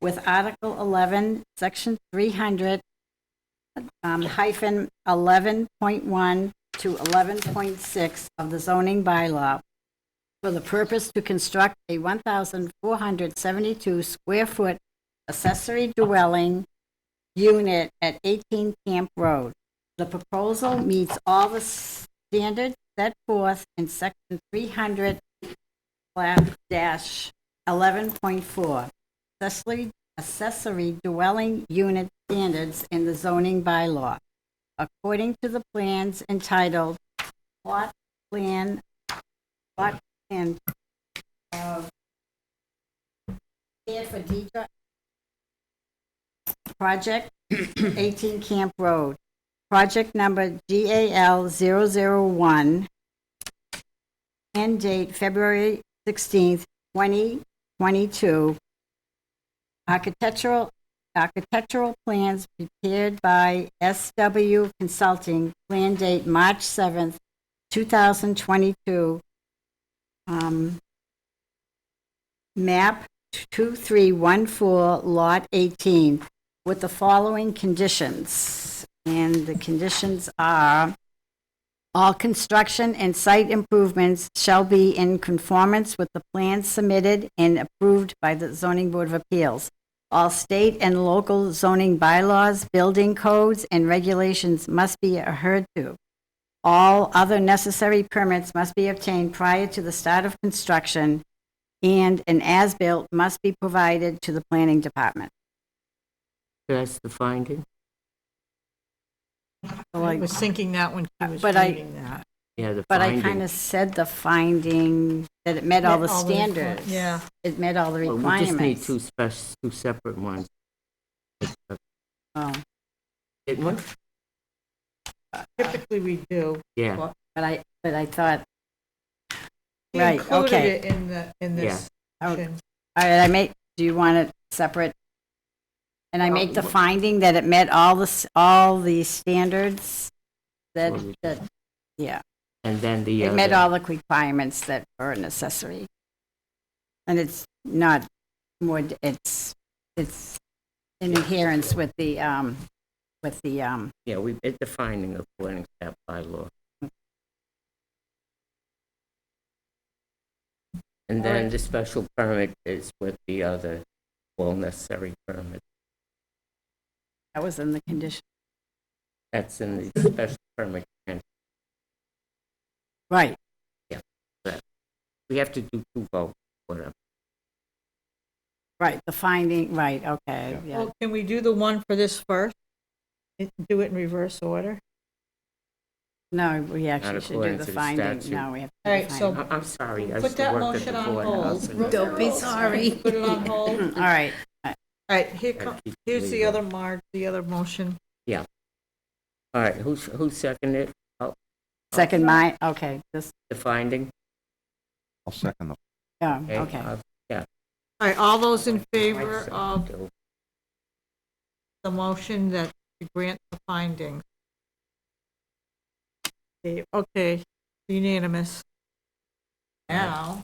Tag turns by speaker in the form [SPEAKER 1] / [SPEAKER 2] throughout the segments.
[SPEAKER 1] with Article 11, Section 300 um, hyphen 11.1 to 11.6 of the zoning bylaw for the purpose to construct a 1,472 square foot accessory dwelling unit at 18 Camp Road. The proposal meets all the standards set forth in section 300 slash dash 11.4 accessory, accessory dwelling unit standards in the zoning bylaw. According to the plans entitled Plot Plan, Plot Plan of Here for Deidre Project 18 Camp Road, project number GAL 001, end date February 16th, 2022. Architectural, architectural plans prepared by SW Consulting, plan date March 7th, 2022. Um, Map 2314, Lot 18, with the following conditions. And the conditions are, all construction and site improvements shall be in conformance with the plans submitted and approved by the Zoning Board of Appeals. All state and local zoning bylaws, building codes, and regulations must be adhered to. All other necessary permits must be obtained prior to the start of construction, and an as-built must be provided to the planning department.
[SPEAKER 2] That's the finding?
[SPEAKER 3] I was thinking that when she was
[SPEAKER 1] uh, But I-
[SPEAKER 3] reading that.
[SPEAKER 2] Yeah, the
[SPEAKER 1] But
[SPEAKER 2] finding.
[SPEAKER 1] I kind of said the finding that it met all the
[SPEAKER 3] Met all the requir-
[SPEAKER 1] standards.
[SPEAKER 3] yeah.
[SPEAKER 1] It met all the
[SPEAKER 2] Well, We just need
[SPEAKER 1] requirements.
[SPEAKER 2] two special, two separate ones.
[SPEAKER 1] Oh,
[SPEAKER 2] Didn't we?
[SPEAKER 3] Typically, we do.
[SPEAKER 2] Yeah,
[SPEAKER 1] But I, but I thought,
[SPEAKER 3] She
[SPEAKER 1] Right,
[SPEAKER 3] included
[SPEAKER 1] okay. Oh,
[SPEAKER 3] it in the, in this section.
[SPEAKER 1] all right, I make, do you want it separate? And I make the
[SPEAKER 2] Well,
[SPEAKER 1] finding that it met all the, s- all the standards that,
[SPEAKER 2] Well, we-
[SPEAKER 1] that, yeah.
[SPEAKER 2] and then the
[SPEAKER 1] It
[SPEAKER 2] other.
[SPEAKER 1] met all the requirements that are an accessory. And it's not more, d- it's, it's in adherence with the, um, with the, um,
[SPEAKER 2] Yeah, we, it's the finding according to that bylaw. And then the special permit is with the other, well, necessary permit.
[SPEAKER 1] That was in the condition.
[SPEAKER 2] That's in the special permit. And
[SPEAKER 1] Right.
[SPEAKER 2] We have to do two votes, whatever.
[SPEAKER 1] Right, the finding, right, okay, yeah.
[SPEAKER 3] Well, can we do the one for this first? It- Do it in reverse order?
[SPEAKER 1] No, we actually should do
[SPEAKER 2] according
[SPEAKER 1] the
[SPEAKER 2] to the
[SPEAKER 1] finding,
[SPEAKER 2] statute.
[SPEAKER 1] no, we have
[SPEAKER 3] All
[SPEAKER 1] to do
[SPEAKER 3] right,
[SPEAKER 1] the
[SPEAKER 3] so-
[SPEAKER 1] finding.
[SPEAKER 2] I- I'm sorry. I used
[SPEAKER 3] Put
[SPEAKER 2] to
[SPEAKER 3] that
[SPEAKER 2] work at the
[SPEAKER 3] motion on
[SPEAKER 2] courthouse and that's-
[SPEAKER 3] hold. Don't be sorry. Put it on hold.
[SPEAKER 1] All right,
[SPEAKER 3] All right, here comes,
[SPEAKER 2] keep
[SPEAKER 3] here's the
[SPEAKER 2] leaving.
[SPEAKER 3] other mark, the other motion.
[SPEAKER 2] All right, who's, who seconded it?
[SPEAKER 1] second my, okay, this,
[SPEAKER 2] the finding?
[SPEAKER 4] I'll second the
[SPEAKER 1] yeah, okay.
[SPEAKER 2] I'll-
[SPEAKER 3] All right, all those in
[SPEAKER 2] Uh, I'll
[SPEAKER 3] favor
[SPEAKER 2] second
[SPEAKER 3] of
[SPEAKER 2] too.
[SPEAKER 3] the motion that to grant the findings? Okay, Okay, unanimous. Now,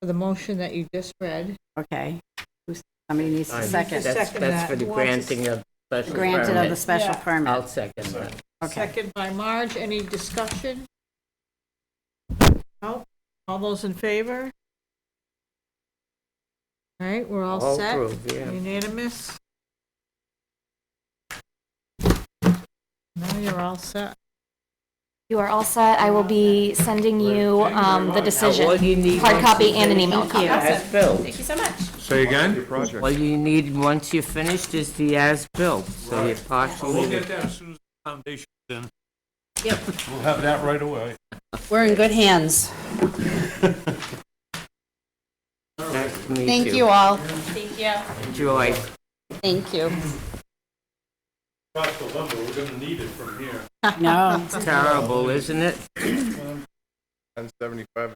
[SPEAKER 3] for the motion that you just read,
[SPEAKER 1] Okay. Who's- Somebody needs to
[SPEAKER 2] Fine.
[SPEAKER 1] second.
[SPEAKER 2] That's,
[SPEAKER 3] Second
[SPEAKER 2] that's
[SPEAKER 3] that.
[SPEAKER 2] for the
[SPEAKER 3] Who wants to
[SPEAKER 2] granting of special
[SPEAKER 1] Granted of the
[SPEAKER 2] permit.
[SPEAKER 1] special
[SPEAKER 3] Yeah.
[SPEAKER 1] permit,
[SPEAKER 2] I'll second that.
[SPEAKER 1] okay.
[SPEAKER 3] second by Marge, any discussion? No, all those in favor? All right, we're all
[SPEAKER 2] All
[SPEAKER 3] set,
[SPEAKER 2] approved, yeah.
[SPEAKER 3] unanimous? Now you're all set.
[SPEAKER 5] You are all set. I will be sending you um, the
[SPEAKER 2] Now, all
[SPEAKER 5] decision,
[SPEAKER 2] you need
[SPEAKER 5] hard
[SPEAKER 2] once
[SPEAKER 5] copy
[SPEAKER 2] you
[SPEAKER 5] and an
[SPEAKER 2] finish-
[SPEAKER 5] email copy.
[SPEAKER 2] As built.
[SPEAKER 4] Say again? Project.
[SPEAKER 2] All you need once you're finished is the as built, so you're
[SPEAKER 6] We'll
[SPEAKER 2] partially.
[SPEAKER 6] get that as soon as the foundation's in.
[SPEAKER 4] We'll have that right away.
[SPEAKER 7] We're in good hands.
[SPEAKER 2] Nice to meet
[SPEAKER 7] Thank you all.
[SPEAKER 2] Enjoy.
[SPEAKER 7] Thank you.
[SPEAKER 6] Across the lumber, we're gonna need it from here.
[SPEAKER 1] No,
[SPEAKER 2] Terrible, isn't it?
[SPEAKER 4] Ten seventy-five.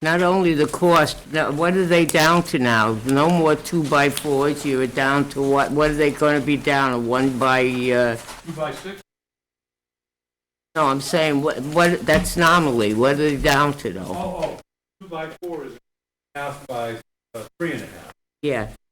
[SPEAKER 2] Not only the cost, now, what are they down to now? No more two by fours, you're down to what, what are they gonna be down, to? one by, uh,
[SPEAKER 6] Two by six,
[SPEAKER 2] no, I'm saying, what, what, that's nominally, what are they down to
[SPEAKER 6] oh,
[SPEAKER 2] though?
[SPEAKER 6] oh, two by four is half by, uh, three and a half.
[SPEAKER 2] Yeah,